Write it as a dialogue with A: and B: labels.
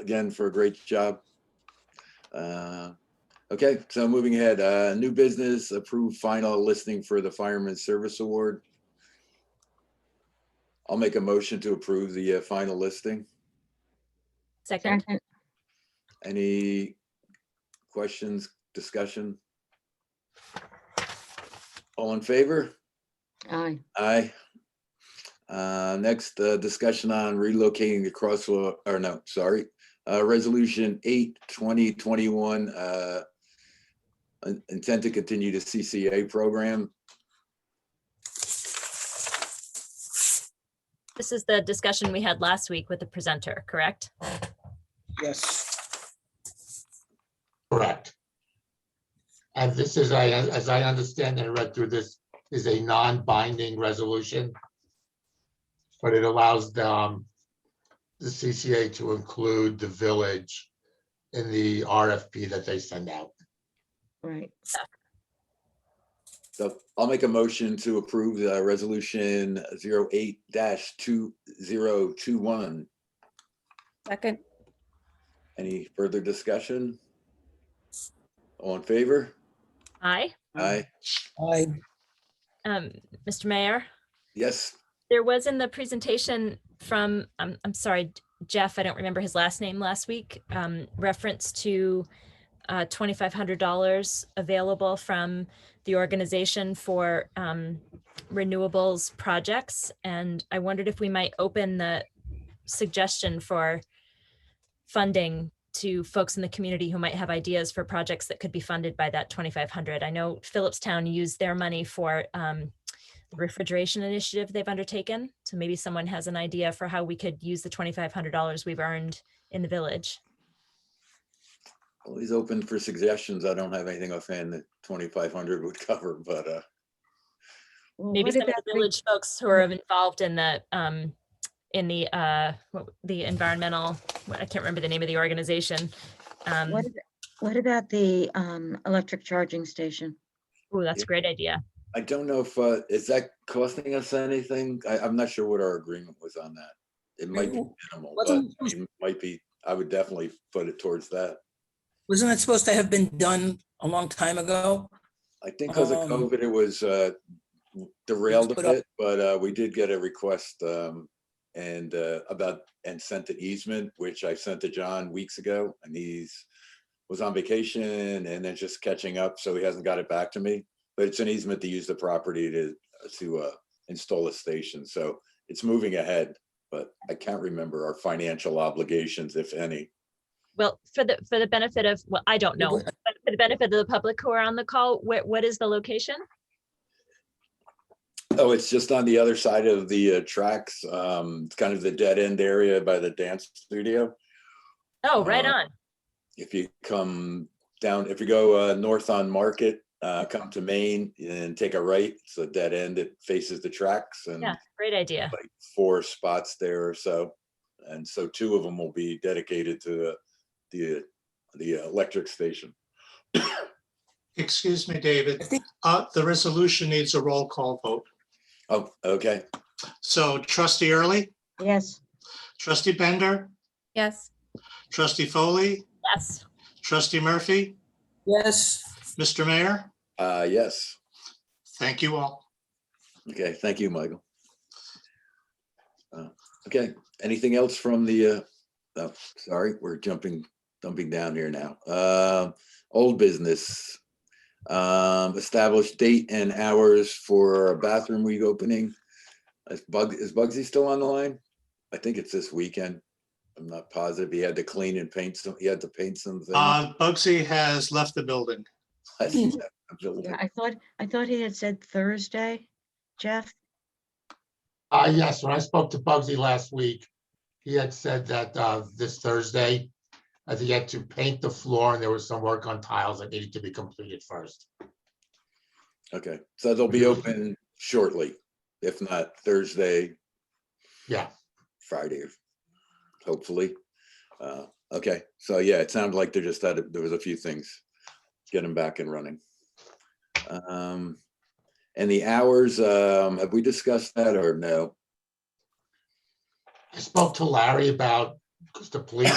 A: again for a great job. Uh, Okay, so moving ahead, uh, new business, approved final listing for the Fireman's Service Award. I'll make a motion to approve the uh, final listing.
B: Second,
C: Second,
A: Any questions, discussion? All in favor?
C: aye,
A: Aye. Uh, Next, uh, discussion on relocating the crosswalk, or no, sorry, uh, Resolution 8, 2021, uh, in- intent to continue the CCA program.
B: this is the discussion we had last week with the presenter, correct?
D: Yes,
E: Correct. And this is, I, as I understand and read through this, is a non-binding resolution. But it allows the, um, the CCA to include the village in the RFP that they send out.
C: right,
A: So I'll make a motion to approve the Resolution 08-2021.
F: Second,
A: Any further discussion? All in favor?
B: Aye.
A: Aye.
D: I,
B: Um, Mr. Mayor,
A: Yes,
B: there was in the presentation from, um, I'm, I'm sorry, Jeff, I don't remember his last name last week, um, reference to uh, $2,500 available from the organization for um, renewables projects. And I wondered if we might open the suggestion for funding to folks in the community who might have ideas for projects that could be funded by that 2,500. I know Phillipstown used their money for um, the refrigeration initiative they've undertaken. So maybe someone has an idea for how we could use the twenty-five hundred dollars we've earned in the village.
A: always open for suggestions. I don't have anything offhand that 2,500 would cover, but uh,
C: Well,
B: Maybe
C: what
B: some
C: did
B: of the
C: that bring-
B: village folks who are
C: Mm.
B: involved in the, um, in the, uh, what- the environmental, what- I can't remember the name of the organization. Um,
C: What ab- what about the um, electric charging station?
B: oh, that's a great idea.
A: I don't know if, uh, is that costing us anything? I, I'm not sure what our agreement was on that. It might be minimal, but
D: wasn't-
A: I mean, it might be, I would definitely put it towards that.
D: wasn't that supposed to have been done a long time ago?
A: I think because of
D: Um,
A: COVID, it was, uh, derailed a
D: put up-
A: bit, but, uh, we did get a request, um, and, uh, about, and sent an easement, which I sent to John weeks ago, and he's, was on vacation and then just catching up, so he hasn't got it back to me. But it's an easement to use the property to, to, uh, install a station, so it's moving ahead, but I can't remember our financial obligations, if any.
B: Well, for the, for the benefit of, well, I don't know,
D: was-
B: but for the benefit of the public who are on the call, what, what is the location?
A: Oh, it's just on the other side of the uh, tracks. Um, it's kind of the dead end area by the dance studio.
B: Oh, right
A: Uh,
B: on.
A: If you come down, if you go uh, north on Market, uh, come to Maine and take a right, it's a dead end. It faces the tracks and
B: Yeah, great idea.
A: like four spots there or so. And so two of them will be dedicated to uh, the the electric station.
G: Excuse me,
D: I
G: David.
D: think-
G: Uh, The resolution needs a roll call vote.
A: Oh, okay.
G: So trustee Early,
C: Yes,
G: trustee Bender,
F: yes,
G: trustee Foley,
B: Yes.
G: trustee Murphy,
D: Yes,
G: Mr. Mayor,
A: Uh, yes.
G: thank you all.
A: Okay. Thank you, Michael. Uh, Okay, anything else from the, uh, oh, sorry, we're jumping, dumping down here now. Uh, Old business. Um, Establish date and hours for a bathroom reopening. Is Bug, is Bugsy still on the line? I think it's this weekend. I'm not positive. He had to clean and paint some, he had to paint something.
G: Uh, Bugsy has left the building.
C: yeah, I thought, I thought he had said Thursday, Jeff.
E: Uh, yes, when I spoke to Bugsy last week, he had said that, uh, this Thursday, uh, he had to paint the floor and there was some work on tiles that needed to be completed first.
A: Okay, so they'll be open shortly, if not Thursday,
E: Yeah,
A: Friday, hopefully. Uh, Okay, so yeah, it sounded like there just had, there was a few things, get them back and running. Um, And the hours, um, have we discussed that or no?
E: I spoke to Larry about, because the police